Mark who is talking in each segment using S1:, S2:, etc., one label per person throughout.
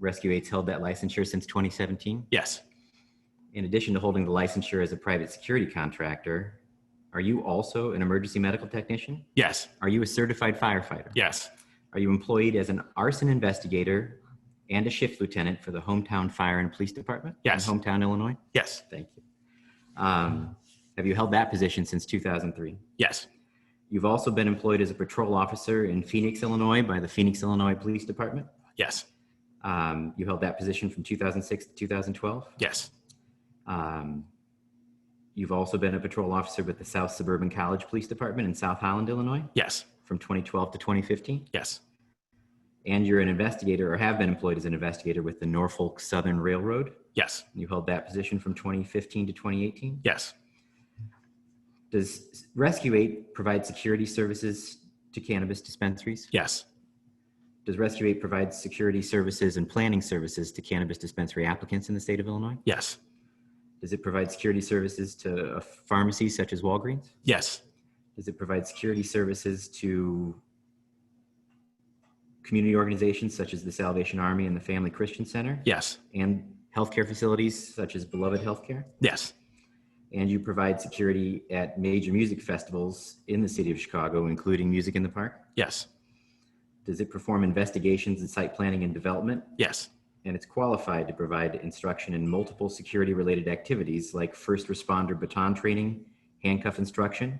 S1: Rescue Aids held that licensure since 2017?
S2: Yes.
S1: In addition to holding the licensure as a private security contractor, are you also an emergency medical technician?
S2: Yes.
S1: Are you a certified firefighter?
S2: Yes.
S1: Are you employed as an arson investigator and a shift lieutenant for the hometown fire and police department?
S2: Yes.
S1: In hometown Illinois?
S2: Yes.
S1: Thank you. Um, have you held that position since 2003?
S2: Yes.
S1: You've also been employed as a patrol officer in Phoenix, Illinois by the Phoenix, Illinois Police Department.
S2: Yes.
S1: Um, you held that position from 2006 to 2012.
S2: Yes.
S1: Um, you've also been a patrol officer with the South Suburban College Police Department in South Holland, Illinois
S2: Yes.
S1: from 2012 to 2015.
S2: Yes.
S1: And you're an investigator or have been employed as an investigator with the Norfolk Southern Railroad.
S2: Yes.
S1: You held that position from 2015 to 2018.
S2: Yes.
S1: Does Rescue 8 provide security services to cannabis dispensaries?
S2: Yes.
S1: Does Rescue 8 provide security services and planning services to cannabis dispensary applicants in the state of Illinois?
S2: Yes.
S1: Does it provide security services to uh, pharmacies such as Walgreens?
S2: Yes.
S1: Does it provide security services to community organizations such as the Salvation Army and the Family Christian Center
S2: Yes.
S1: and healthcare facilities such as Beloved Healthcare?
S2: Yes.
S1: And you provide security at major music festivals in the city of Chicago, including Music in the Park?
S2: Yes.
S1: Does it perform investigations in site planning and development?
S2: Yes.
S1: And it's qualified to provide instruction in multiple security related activities like first responder baton training, handcuff instruction,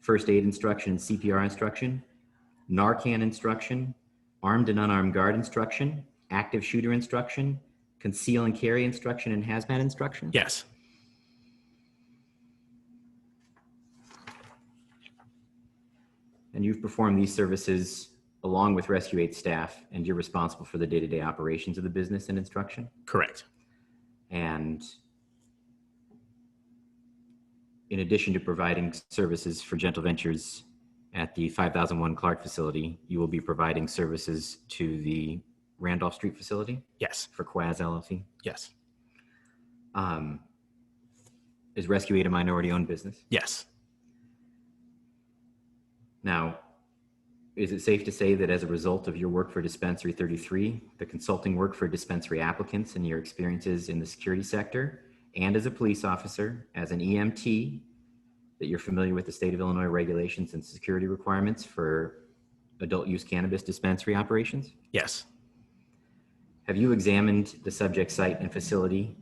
S1: first aid instruction, CPR instruction, Narcan instruction, armed and unarmed guard instruction, active shooter instruction, conceal and carry instruction, and hazmat instruction?
S2: Yes.
S1: And you've performed these services along with Rescue 8 staff, and you're responsible for the day to day operations of the business and instruction?
S2: Correct.
S1: And in addition to providing services for Gentle Ventures at the 5001 Clark facility, you will be providing services to the Randolph Street facility
S2: Yes.
S1: for Quaz LLC.
S2: Yes.
S1: Um, is Rescue Aid a minority owned business?
S2: Yes.
S1: Now, is it safe to say that as a result of your work for Dispensary 33, the consulting work for dispensary applicants and your experiences in the security sector, and as a police officer, as an EMT, that you're familiar with the state of Illinois regulations and security requirements for adult use cannabis dispensary operations?
S2: Yes.
S1: Have you examined the subject site and facility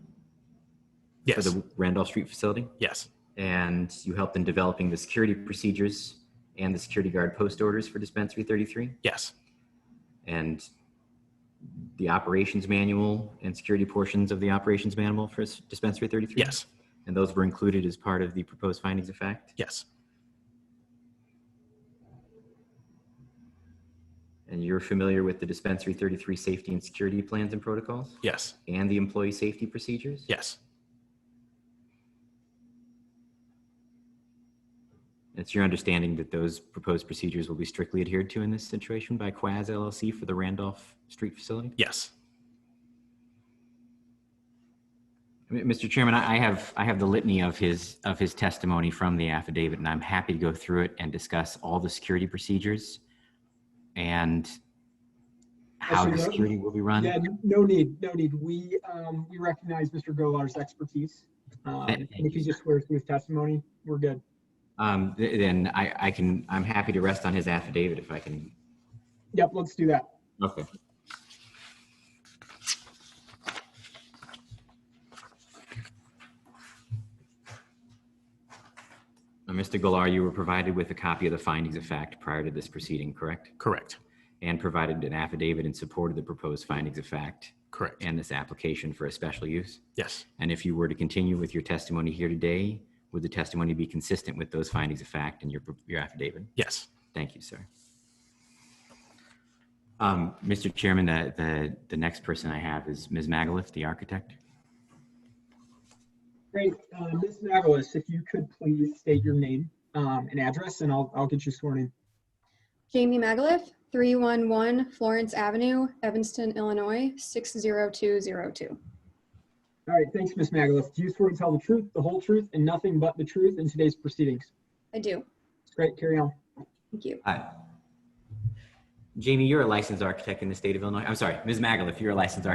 S1: for
S2: Yes.
S1: the Randolph Street facility?
S2: Yes.
S1: And you helped in developing the security procedures and the security guard post orders for Dispensary 33?
S2: Yes.
S1: and the operations manual and security portions of the operations manual for s- dispensary 33?
S2: Yes.
S1: And those were included as part of the proposed findings of fact?
S2: Yes.
S1: And you're familiar with the dispensary 33 safety and security plans and protocols
S2: Yes.
S1: and the employee safety procedures?
S2: Yes.
S1: It's your understanding that those proposed procedures will be strictly adhered to in this situation by Quaz LLC for the Randolph Street facility?
S2: Yes.
S1: M- Mr. Chairman, I I have, I have the litany of his, of his testimony from the affidavit, and I'm happy to go through it and discuss all the security procedures and how
S3: Actually,
S1: the
S3: no-
S1: security will be run.
S3: Yeah, no need, no need. We, um, we recognize Mr. Golar's expertise. Um,
S1: Thank
S3: and if
S1: you,
S3: he just swears to his testimony, we're good.
S1: Um, th- Then I, I can, I'm happy to rest on his affidavit if I can.
S3: Yep, let's do that.
S1: Okay. Now, Mr. Golar, you were provided with a copy of the findings of fact prior to this proceeding, correct?
S2: Correct.
S1: and provided an affidavit in support of the proposed findings of fact
S2: Correct.
S1: and this application for a special use.
S2: Yes.
S1: And if you were to continue with your testimony here today, would the testimony be consistent with those findings of fact and your, your affidavit?
S2: Yes.
S1: Thank you, sir. Um, Mr. Chairman, the, the, the next person I have is Ms. Magaliff, the architect.
S3: Great. Uh, Ms. Navalis, if you could please state your name, um, and address, and I'll, I'll get you sworn in.
S4: Jamie Magaliff, 311 Florence Avenue, Evanston, Illinois, 60202.
S3: All right, thanks, Ms. Magaliff. Do you swear to tell the truth, the whole truth, and nothing but the truth in today's proceedings?
S4: I do.
S3: Great, carry on.
S4: Thank you.
S1: Hi. Jamie, you're a licensed architect in the state of Illinois. I'm sorry, Ms. Magaliff, you're a licensed architect